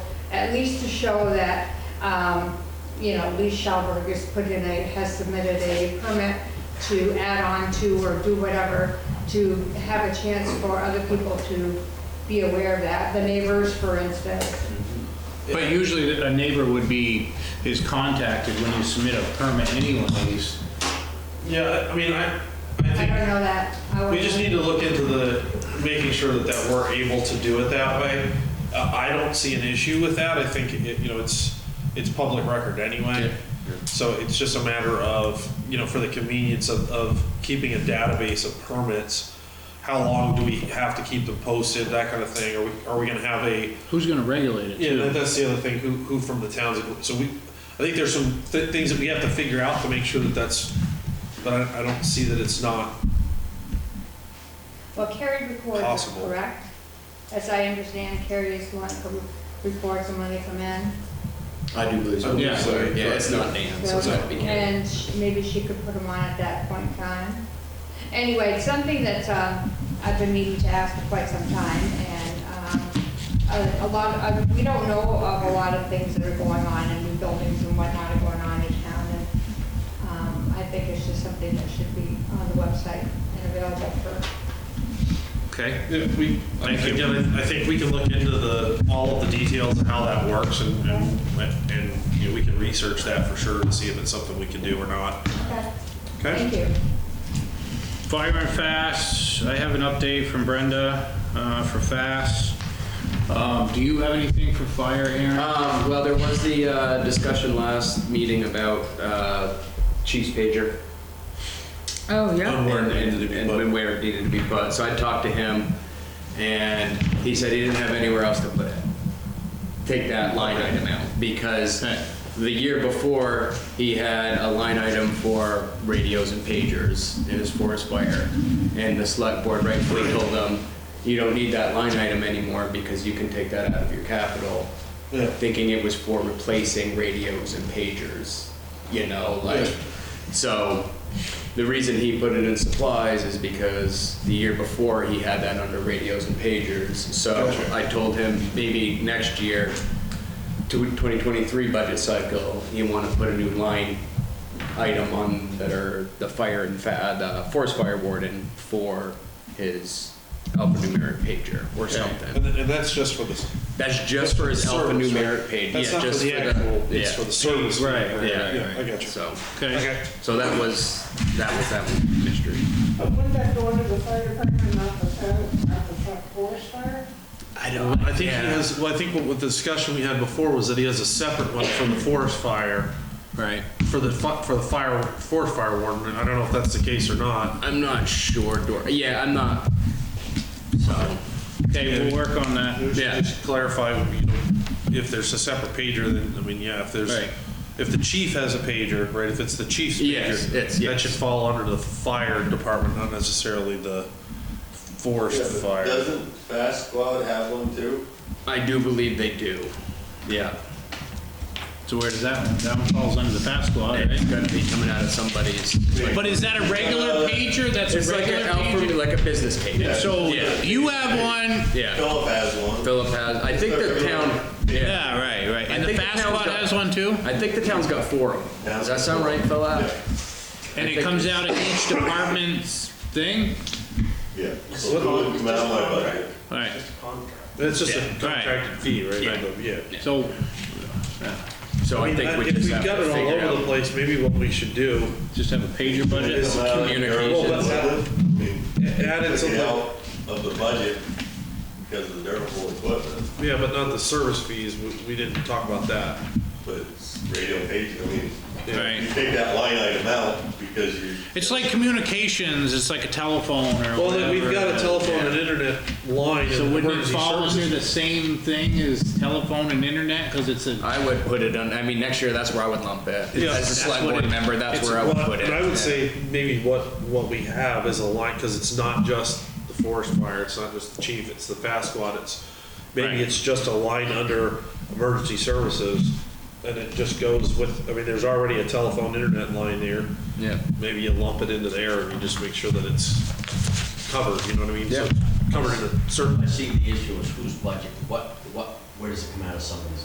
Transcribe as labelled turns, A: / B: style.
A: at least to show that, um, you know, Lee Schalberg has put in a, has submitted a permit to add on to or do whatever, to have a chance for other people to be aware of that, the neighbors, for instance.
B: But usually a neighbor would be, is contacted when you submit a permit anyways.
C: Yeah, I mean, I, I
A: I
C: think
A: don't know that. I
C: we just
A: would-
C: need to look into the, making sure that, that we're able to do it that way. Uh, I don't see an issue with that. I think, it- you know, it's, it's public record anyway. So it's just a matter of, you know, for the convenience of, of keeping a database of permits. How long do we have to keep them posted, that kind of thing? Are we, are we gonna have a,
B: Who's gonna regulate it
C: Yeah, that-
B: too?
C: that's the other thing, who, who from the towns, so we, I think there's some th- things that we have to figure out to make sure that that's, but I, I don't see that it's not,
A: Well, Carrie records, it,
C: Possible.
A: correct? As I understand, Carrie is the one who records them when they come in.
D: I do believe so.
B: Yeah.
D: So, Yeah, it's not Dan's, it's not beginning.
A: And sh- maybe she could put them on at that point in time. Anyway, it's something that um, I've been meaning to ask for quite some time, and um, a a lot, of- we don't know of a lot of things that are going on, and new buildings and whatnot are going on in town, and um, I think it's just something that should be on the website and available for
B: Okay,
C: if we, I-
B: Thank you.
C: again, I I think we can look into the, all of the details and how that works and, and, and, you know, we can research that for sure to see if it's something we can do or not.
A: Okay.
C: Okay.
A: Thank you.
B: fire and fast, I have an update from Brenda, uh, for fast. Um, do you have anything for fire, Aaron?
D: Um, well, there was the, uh, discussion last meeting about, uh, Chief's pager.
E: Oh, yeah.
C: Um, where it
D: and-
C: needed to be
D: and-
C: put.
D: And where it needed to be put, so I talked to him, and he said he didn't have anywhere else to put it. Take that line item out, because
B: Okay.
D: the year before, he had a line item for radios and pagers in his forest fire, and the select board rightfully told him, you don't need that line item anymore, because you can take that out of your capital,
C: Yeah.
D: thinking it was for replacing radios and pagers, you know, like, so the reason he put it in supplies is because the year before he had that under radios and pagers. So
C: Gotcha.
D: I told him maybe next year, to 2023 budget cycle, you want to put a new line item on that are the fire and fa- uh, the forest fire warden for his alphanumeric pager or
B: Okay.
D: something.
C: And, and that's just for the,
D: That's just for his
C: Service,
D: alphanumeric
C: right?
D: page.
C: That's
D: yeah,
C: not for
D: just
C: the actual, it's
D: yeah.
C: for the service.
B: Right, right,
D: Yeah,
C: Yeah, I got you.
D: So,
B: Okay,
C: Okay.
D: so that was that was that one mystery.
F: But wouldn't that go under the fire department, not the, town- not the truck forest fire?
D: I don't.
C: I think he has, well, I think what, what the discussion we had before was that he has a separate one for the forest fire,
D: Right.
C: for the, fi- for the fire, forest fire warden, and I don't know if that's the case or not.
D: I'm not sure, Dor. Yeah, I'm not. So,
B: okay, we'll work on that.
C: We should
D: Yeah.
C: Just clarify, you know, if there's a separate pager, then, I mean, yeah, if there's,
B: Right.
C: if the chief has a pager, right, if it's the chief's
D: Yes,
C: pager,
D: it's-
C: that
D: yes.
C: should fall under the fire department, not necessarily the forest
G: Yeah, but
C: fire.
G: Doesn't Fast Squad have one too?
D: I do believe they do. Yeah.
B: So where does that, one- that one falls under the fast law,
D: It's
B: right?
D: gonna be coming out of somebody's.
B: But is that a
C: Uh,
B: regular pager? That's
D: It's
B: a
D: like an
B: regular
D: alpha,
B: pager?
D: like a business page.
G: Yeah.
B: So
D: Yeah.
B: you have one,
D: Yeah.
G: Philip has one.
D: Philip has. I think the town. Yeah.
B: yeah, right, right,
D: I
B: and the
D: think the
B: fast
D: town's
B: law
D: got-
B: has one too?
D: I think the town's got four of them. Does that sound right, Phil? Al?
G: Yeah,
B: And
D: I
B: it
D: think-
B: comes out of each department's thing?
G: yeah. So it wouldn't come out of my budget.
B: All right,
C: It's just a
B: Yeah, right.
C: contracted fee, right?
D: Yeah.
C: Yeah.
B: so,
D: So
C: I
D: I
C: mean,
D: think
C: I-
D: we
C: if
D: just
C: we've
D: have
C: got
D: to
C: it all
D: figure
C: over the
D: out.
C: place, maybe what we should do
B: just have a pager budget?
G: It's allowed in your-
D: communications.
C: Well, that's-
G: I mean,
C: Add in
G: Took
C: something.
G: it out of the budget because of the durable equipment,
C: Yeah, but not the service fees, we, we didn't talk about that.
G: but it's radio page, I mean,
B: Right.
G: you take that line item out because you.
B: It's like communications, it's like a telephone or
C: Well, then we've got a
B: whatever.
C: telephone and internet line.
B: So
C: and
B: wouldn't it
C: emergency
B: fall under
C: services.
B: the same thing as telephone and internet, because it's a,
D: I would put it on. I mean, next year that's where I would lump it.
C: Yeah,
D: As a
C: that's
D: select
C: what
D: board
C: it-
D: member, that's
C: It's-
D: where I would
C: well,
D: put it.
C: And I would
D: Yeah.
C: say maybe what, what we have is a line, because it's not just the forest fire, it's not just the chief, it's the fast squad, it's,
B: Right.
C: maybe it's just a line under emergency services, and it just goes with, I mean, there's already a telephone internet line there.
D: Yeah.
C: Maybe you lump it into there and you just make sure that it's covered, you know what I mean? So
D: Yeah.
C: Covered in a certain
H: I see the issue is whose budget, what, what, where does it come out of somebody's